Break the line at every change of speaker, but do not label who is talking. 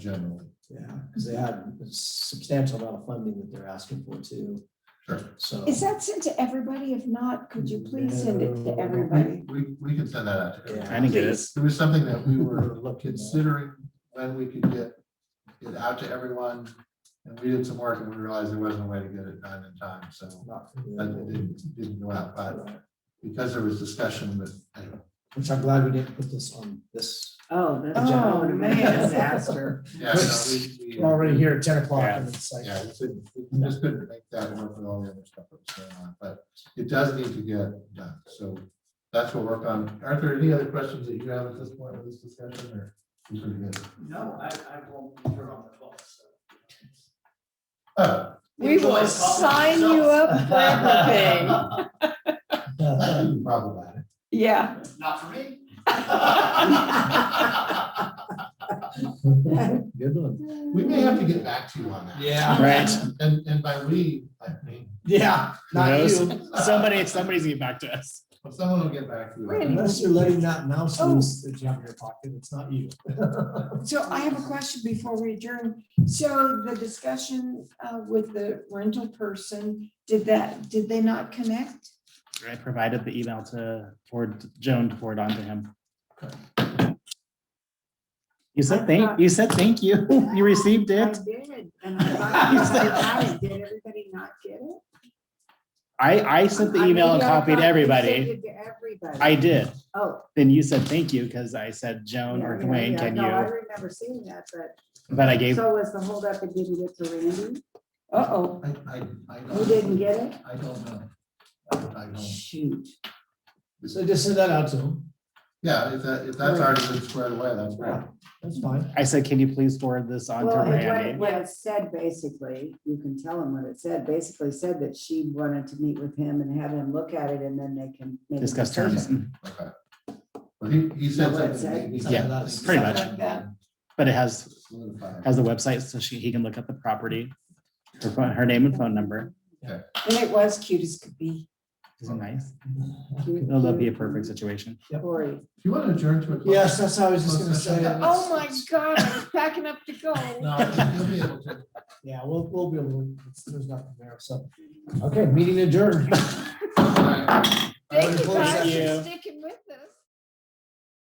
generally.
Yeah, because they had a substantial amount of funding that they're asking for too,
Sure.
so.
Is that sent to everybody? If not, could you please send it
No.
to everybody?
We, we can send that out. to
Yeah.
everyone.
I didn't get it.
It was something that we were
looking at-
considering when we could get it out to everyone. And we did some work and we realized there wasn't a way to get it done in time, so
not
that
familiar.
didn't, didn't go out, but because there was discussion with, anyway.
Which I'm glad we didn't put this on this.
Oh, that's
Oh, man.
disaster.
Yeah, no, we- we, uh,
I'm already here at ten o'clock
Yeah.
and it's like,
Yeah, we couldn't, we just couldn't make that work with all the other stuff that was going on, but it does need to get done, so that's what we're working on. Arthur, any other questions that you have at this point with this discussion or? you pretty good?
No, I, I won't be here on the twelfth, so.
Oh,
We will sign you up for everything.
Oh, Problematic.
Yeah.
Not for me.
Good one. We may have to get back to you on that.
yeah,
Right.
And, and by we, I mean.
yeah, not
knows?
you,
Somebody, somebody's getting back to us.
Someone will get back to you.
unless you're letting that mouse
Oh.
loose that you have in your pocket, it's not you.
So I have a question before we adjourn. So the discussion uh, with the rental person, did that, did they not connect?
I provided the email to forward Joan to forward on to him. You said thank, you said thank you. You received
I
it.
did, and I thought you said that, and did everybody not get it?
I, I sent the
I
email and
maybe I
copied
thought you
everybody.
sent it to everybody.
I did.
Oh.
Then you said thank you because I said Joan or
yeah,
Dwayne,
yeah,
can
No, I
you?
remember seeing that, but
But I gave,
so was the holdup, it didn't get to Randy?
Uh-oh.
I, I, I don't.
You didn't get it?
I don't know. I I don't.
Shoot.
So just send that out to them,
Yeah, if that, if that's already been squared away, that's right.
that's fine.
I said, can you please forward this on to
Well, it- what it-
Randy?
what it said basically, you can tell him what it said, basically said that she wanted to meet with him and have him look at it, and then they can. make a
Discuss terms,
decision.
Okay. Well, he, he said
Yeah, what it
something.
said? Yeah,
pretty much.
Something like that.
but it has,
Solidified.
has the website so she, he can look up the property. Her phone, her name and phone number.
And it was cute as could be.
Isn't it nice?
Cute,
That'll that'd be a
cute.
perfect situation.
Corey.
Do you want to adjourn to a? closed
Yes, that's how I was just gonna say. it.
Oh my God, I was packing up to go.
No, I think you'll be able to.
Yeah, we'll, we'll be able, to- it's- there's nothing there, so, okay, meeting adjourned.
All right.
Thank you
Close
guys
you.
for sticking